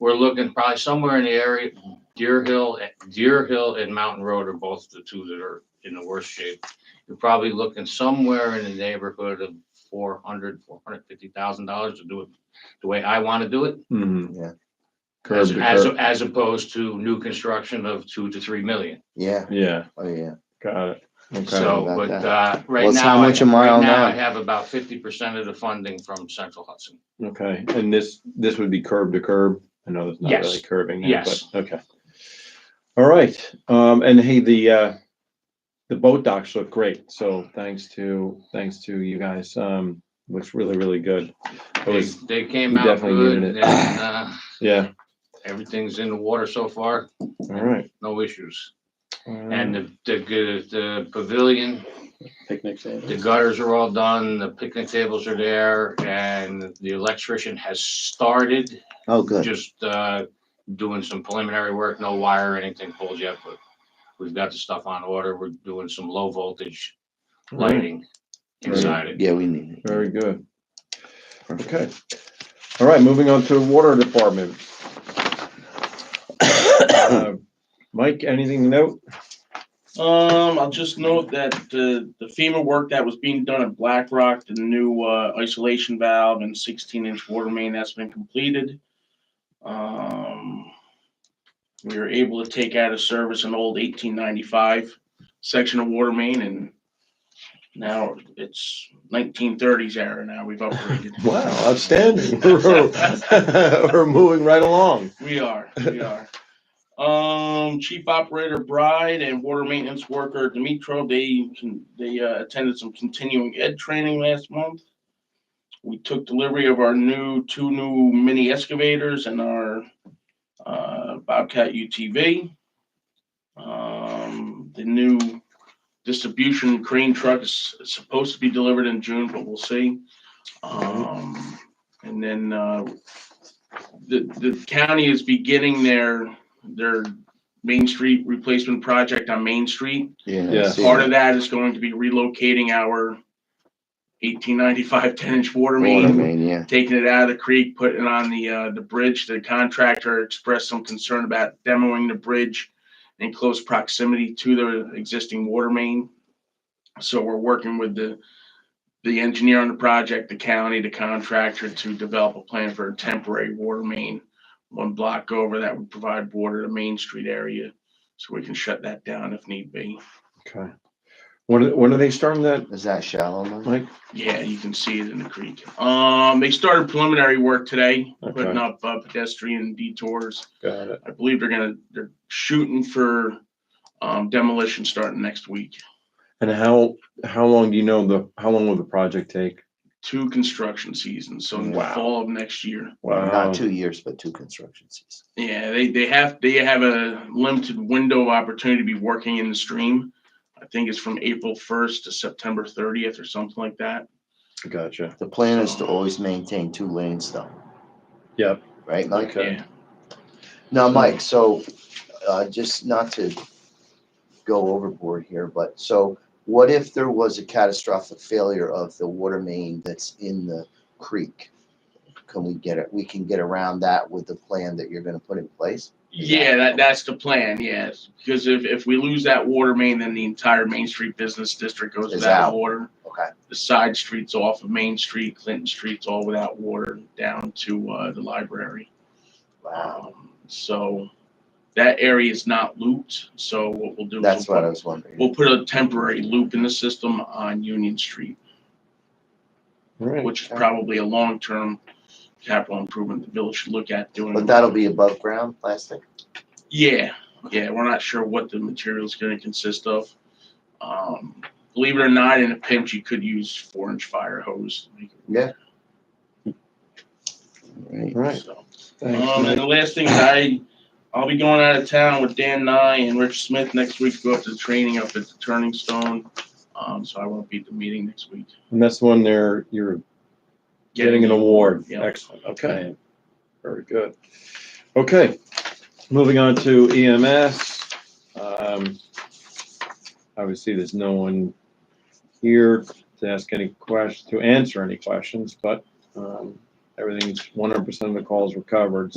looking probably somewhere in the area, Deer Hill, Deer Hill and Mountain Road are both the two that are in the worst shape. You're probably looking somewhere in the neighborhood of four hundred, four hundred fifty thousand dollars to do it the way I want to do it. Mhm. Yeah. Curb As, to as, curb. as opposed to new construction of two to three million. Yeah, Yeah, oh, yeah. got it. I'm sorry So, about but, that. uh, right What's- how now, I- much a mile right now I now? have about fifty percent of the funding from Central Hudson. Okay, and this, this would be curb to curb? I know that's not Yes. really curbing. there, Yes. but- Okay. All right, um, and hey, the, uh, the boat docks look great, so thanks to, thanks to you guys, um, looks really, really good. It They, was, they came Oh, we out definitely good needed and, it. uh, yeah, everything's in the water so far, all right. no issues. And Um, the, the, g- the pavilion, picnic table. the gutters are all done, the picnic tables are there, and the electrician has started Oh, good. just, uh, doing some preliminary work, no wire or anything pulled yet, but we've got the stuff on order. We're doing some low voltage all Mm. right, lighting inside it. Yeah, we need it. Very good. Perfect. Okay. All right, moving on to water department. Uh, Mike, anything to note? Um, I'll just note that the, the FEMA work that was being done at Black Rock, the new, uh, isolation valve and sixteen inch water main, that's been completed. Um, we were able to take out of service an old eighteen ninety-five section of water main and now it's nineteen thirties era now, we've upgraded. Wow, outstanding. We're moving right along. We are, we are. Um, Chief Operator Bride and Water Maintenance Worker Dimitro, they, con- they uh, attended some continuing ed training last month. We took delivery of our new, two new mini excavators and our uh, Bobcat UTV. Um, The new distribution crane truck is supposed to be delivered in June, but we'll see. Um, And then uh, the, the county is beginning their, their Main Street replacement project on Main Street. Yeah. I Yeah. see Part that. of that is going to be relocating our eighteen ninety-five ten-inch water Water main, main, yeah. taking it out of the creek, putting it on the, uh, the bridge. The contractor expressed some concern about demoing the bridge in close proximity to the existing water main. So we're working with the, the engineer on the project, the county, the contractor to develop a plan for a temporary water main one block over that would provide water to Main Street area, so we can shut that down if need be. Okay. When, are- when are they starting that, Is that shallow? Mike? Mike? Yeah, you can see it in the creek. Um, they started preliminary work today, Okay. putting up uh, pedestrian detours. Got it. I believe they're gonna, they're shooting for um, demolition starting next week. And how, how long do you know the, how long will the project take? Two construction seasons, so in the Wow. fall of next year. Wow. Not two years, but two construction seasons. Yeah, they, they have, they have a limited window of opportunity to be working in the stream. I think it's from April first to September thirtieth or something like that. Gotcha. The plan is to always maintain two lanes though, Yep. right, Mike? Okay. Yeah. Now, Mike, so, uh, just not to go overboard here, but so what if there was a catastrophic failure of the water main that's in the creek? Can we get it, we can get around that with the plan that you're gonna put in place? Yeah, that, that's the plan, yes. Because if, if we lose that water main, then the entire Main Street business district goes Is without out. water. Okay, The side streets off of Main Street, Clinton Street's all without water down to, uh, the library. wow, Um, so that area is not looped, so what we'll do is. that's we'll what I put- was wondering. We'll put a temporary loop in the system on Union Street, All right. which is probably a long-term capital improvement the village should look at doing. But that'll be above ground plastic? Yeah, yeah, we're not sure what the material's gonna consist of. Um, believe it or not, in a pinch, you could use four inch fire hose. Yeah. All right. So, Um, and Thanks, the last thing is I, I'll be going out of town with Dan Nye and Rich Smith next week, to go up to the training up at the Turning Stone. Um, so I won't be at the meeting next week. And that's when they're, you're getting an award. Yeah. Excellent. Okay. Very good. Okay, moving on to EMS. Um, Obviously, there's no one here to ask any questions, to answer any questions, but um, everything's 100% of the calls were covered.